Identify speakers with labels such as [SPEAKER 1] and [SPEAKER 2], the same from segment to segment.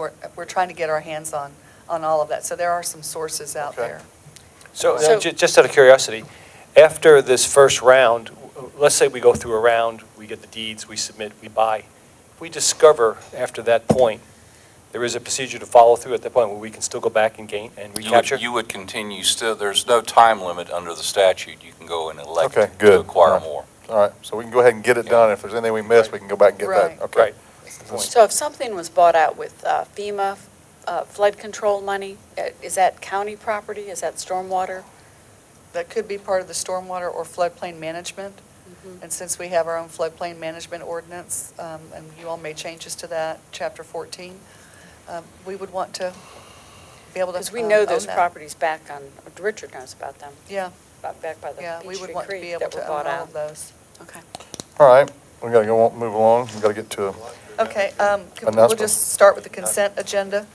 [SPEAKER 1] We're, we're trying to get our hands on, on all of that. So there are some sources out
[SPEAKER 2] Okay.
[SPEAKER 1] there.
[SPEAKER 3] So,
[SPEAKER 1] So-
[SPEAKER 3] uh, ju- just out of curiosity, after this first round, w- let's say we go through a round, we get the deeds, we submit, we buy. If we discover after that point, there is a procedure to follow through at that point where we can still go back and gain and
[SPEAKER 4] You would,
[SPEAKER 3] recapture?
[SPEAKER 4] you would continue still, there's no time limit under the statute. You can go and elect
[SPEAKER 2] Okay,
[SPEAKER 4] to
[SPEAKER 2] good. All
[SPEAKER 4] acquire
[SPEAKER 2] right.
[SPEAKER 4] more.
[SPEAKER 2] All right, so we can go ahead and get it done. If there's anything we missed, we can go back and get
[SPEAKER 1] Right.
[SPEAKER 2] that. Okay.
[SPEAKER 3] Right.
[SPEAKER 5] So if something was bought out with uh, FEMA uh, flood control money, uh, is that county property? Is that stormwater?
[SPEAKER 1] That could be part of the stormwater or floodplain management.
[SPEAKER 5] Mm-hmm.
[SPEAKER 1] And since we have our own floodplain management ordinance, um, and you all made changes to that, chapter 14, um, we would want to be able to.
[SPEAKER 5] Because we
[SPEAKER 1] um,
[SPEAKER 5] know
[SPEAKER 1] own
[SPEAKER 5] those
[SPEAKER 1] that.
[SPEAKER 5] properties back on, Richard knows about them,
[SPEAKER 1] Yeah,
[SPEAKER 5] about- back by the
[SPEAKER 1] yeah, we
[SPEAKER 5] Peachtree
[SPEAKER 1] would want to be
[SPEAKER 5] Creek
[SPEAKER 1] able
[SPEAKER 5] that were
[SPEAKER 1] to own
[SPEAKER 5] bought
[SPEAKER 1] all
[SPEAKER 5] out.
[SPEAKER 1] of those.
[SPEAKER 5] Okay.
[SPEAKER 2] All right, we gotta go, on- move along. We gotta get to, a-
[SPEAKER 1] Okay, um, could- we'll
[SPEAKER 2] Announcement.
[SPEAKER 1] just start with the consent agenda.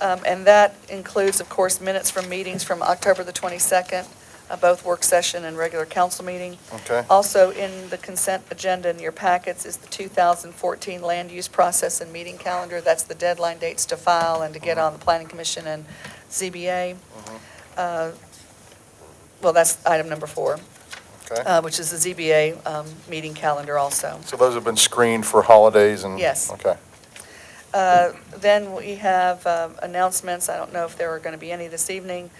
[SPEAKER 1] Um, And that includes, of course, minutes from meetings from October the 22nd, uh, both work session and regular council meeting.
[SPEAKER 2] okay?
[SPEAKER 1] Also, in the consent agenda in your packets is the 2014 land use process and meeting calendar. That's the deadline dates to file and to get
[SPEAKER 2] Mm-hmm.
[SPEAKER 1] on the planning commission and ZBA. Uh, Well, that's item number four,
[SPEAKER 2] Okay.
[SPEAKER 1] uh, which is the ZBA um, meeting calendar also.
[SPEAKER 2] So those have been screened for holidays and?
[SPEAKER 1] Yes.
[SPEAKER 2] Okay.
[SPEAKER 1] Uh, Then we have um, announcements, I don't know if there are going to be any this evening.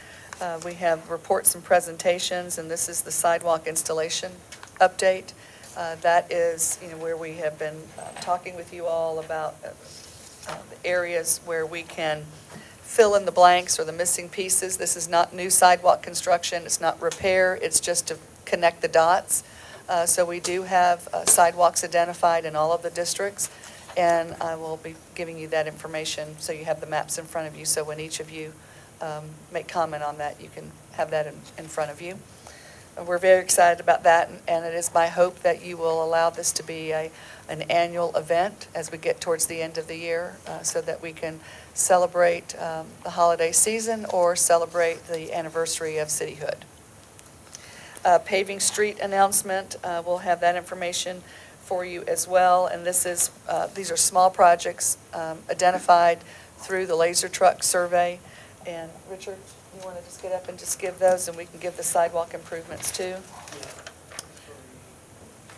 [SPEAKER 1] Uh, We have reports and presentations, and this is the sidewalk installation update. Uh, That is, you know, where we have been uh, talking with you all about uh, uh, the areas where we can fill in the blanks or the missing pieces. This is not new sidewalk construction, it's not repair, it's just to connect the dots. Uh, So we do have uh, sidewalks identified in all of the districts. And I will be giving you that information, so you have the maps in front of you, so when each of you um, make comment on that, you can have that in, in front of you. And We're very excited about that, and- and it is my hope that you will allow this to be a, an annual event as we get towards the end of the year, uh, so that we can celebrate um, the holiday season or celebrate the anniversary of cityhood. Uh, Paving street announcement, uh, we'll have that information for you as well. And this is, uh, these are small projects um, identified through the laser truck survey. And Richard, you want to just get up and just give those, and we can give the sidewalk improvements too?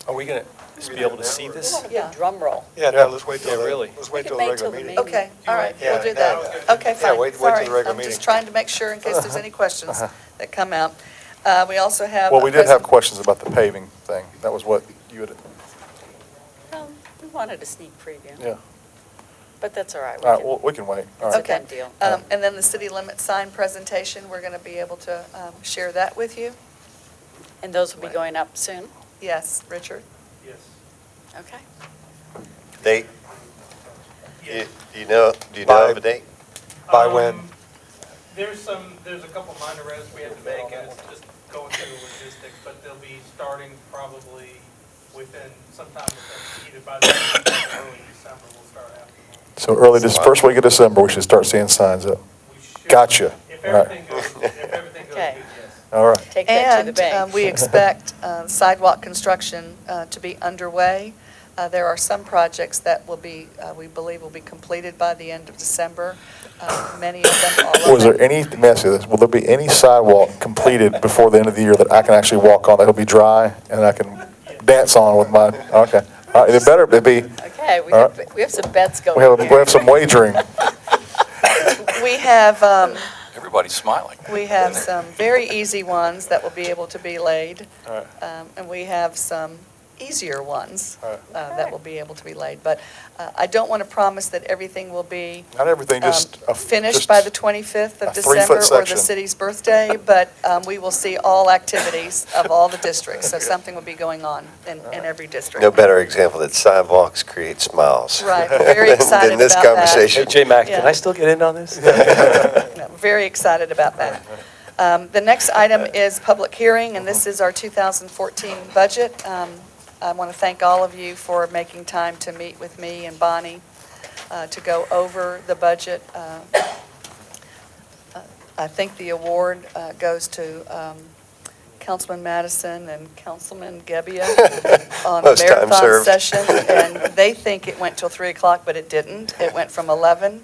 [SPEAKER 3] Are we going to be able to see
[SPEAKER 5] We
[SPEAKER 3] this?
[SPEAKER 5] want a
[SPEAKER 1] Yeah.
[SPEAKER 5] big drum roll.
[SPEAKER 6] Yeah, no, let's wait till,
[SPEAKER 3] Yeah,
[SPEAKER 6] the-
[SPEAKER 3] really.
[SPEAKER 6] let's wait
[SPEAKER 5] We
[SPEAKER 6] till
[SPEAKER 5] could
[SPEAKER 6] the
[SPEAKER 5] wait
[SPEAKER 6] regular
[SPEAKER 5] till the
[SPEAKER 6] meeting.
[SPEAKER 5] meeting.
[SPEAKER 1] Okay, all right, we'll do that. Okay,
[SPEAKER 6] Yeah,
[SPEAKER 1] fine.
[SPEAKER 6] wait- wait till the
[SPEAKER 1] Sorry,
[SPEAKER 6] regular
[SPEAKER 1] I'm
[SPEAKER 6] meeting. Uh-huh.
[SPEAKER 1] just trying to make sure in case there's any questions that come out. Uh, We also have.
[SPEAKER 2] Well,
[SPEAKER 1] a
[SPEAKER 2] we did have
[SPEAKER 1] present-
[SPEAKER 2] questions about the paving thing. That was what you had,
[SPEAKER 5] Well, We wanted a sneak preview.
[SPEAKER 2] yeah.
[SPEAKER 5] But that's all right. We
[SPEAKER 2] All right,
[SPEAKER 5] can-
[SPEAKER 2] well, we can wait. All
[SPEAKER 5] It's a
[SPEAKER 2] right.
[SPEAKER 1] Okay.
[SPEAKER 5] done deal.
[SPEAKER 1] Um, And then the city limit sign presentation, we're going to be able to um, share that with you.
[SPEAKER 5] And those will be going up soon?
[SPEAKER 1] Yes, Richard?
[SPEAKER 5] Okay.
[SPEAKER 7] Date? You- Do you know, do you know
[SPEAKER 6] By-
[SPEAKER 7] of a date?
[SPEAKER 6] By when?
[SPEAKER 8] Um, There's some, there's a couple minor edits we have to make, and it's just going through the logistics, but they'll be starting probably within, sometime within, either by the end of December or early December, we'll start after.
[SPEAKER 2] So early, this first week of December, we should start seeing signs up.
[SPEAKER 8] We should-
[SPEAKER 2] Gotcha.
[SPEAKER 8] If
[SPEAKER 2] All right.
[SPEAKER 8] everything goes, if everything goes good,
[SPEAKER 5] Okay.
[SPEAKER 8] yes.
[SPEAKER 2] All right.
[SPEAKER 5] Take that to the bank.
[SPEAKER 1] And um, we expect uh, sidewalk construction uh, to be underway. Uh, There are some projects that will be, uh, we believe will be completed by the end of December. Uh, Many of them, all of them.
[SPEAKER 2] Was there any, let me ask you this, will there be any sidewalk completed before the end of the year that I can actually walk on, that'll be dry, and I can dance on with my, okay. All right, it better be,
[SPEAKER 5] Okay, we
[SPEAKER 2] All
[SPEAKER 5] have, we have some bets going
[SPEAKER 2] we have,
[SPEAKER 5] here.
[SPEAKER 2] we have some wagering.
[SPEAKER 1] We have, um,
[SPEAKER 4] Everybody's smiling.
[SPEAKER 1] we have some very easy ones that will be able to be laid. Um, And we have some easier ones
[SPEAKER 2] All right.
[SPEAKER 1] uh, that will be able to be laid. But uh, I don't want to promise that everything will be
[SPEAKER 2] Not everything, just.
[SPEAKER 1] um,
[SPEAKER 2] a-
[SPEAKER 1] finished
[SPEAKER 2] just-
[SPEAKER 1] by the 25th
[SPEAKER 2] a
[SPEAKER 1] of
[SPEAKER 2] three-foot
[SPEAKER 1] December or the
[SPEAKER 2] section.
[SPEAKER 1] city's birthday, but um, we will see all activities of all the districts. So something will be going on in, in every district.
[SPEAKER 7] No better example that sidewalks create smiles.
[SPEAKER 1] Right, we're very excited
[SPEAKER 7] Than this
[SPEAKER 1] about that.
[SPEAKER 3] Hey,
[SPEAKER 7] conversation.
[SPEAKER 3] J-Mac, can
[SPEAKER 1] Yeah.
[SPEAKER 3] I still get in on this?
[SPEAKER 1] No, we're Very excited about that. Um, The next item is public hearing, and this is our 2014 budget. Um, I want to thank all of you for making time to meet with me and Bonnie uh, to go over the budget. Uh, I think the award uh, goes to um, Councilman Madison and Councilman Gebbia on a
[SPEAKER 7] Most time
[SPEAKER 1] marathon
[SPEAKER 7] served.
[SPEAKER 1] session. And they think it went till 3 o'clock, but it didn't. It went from 11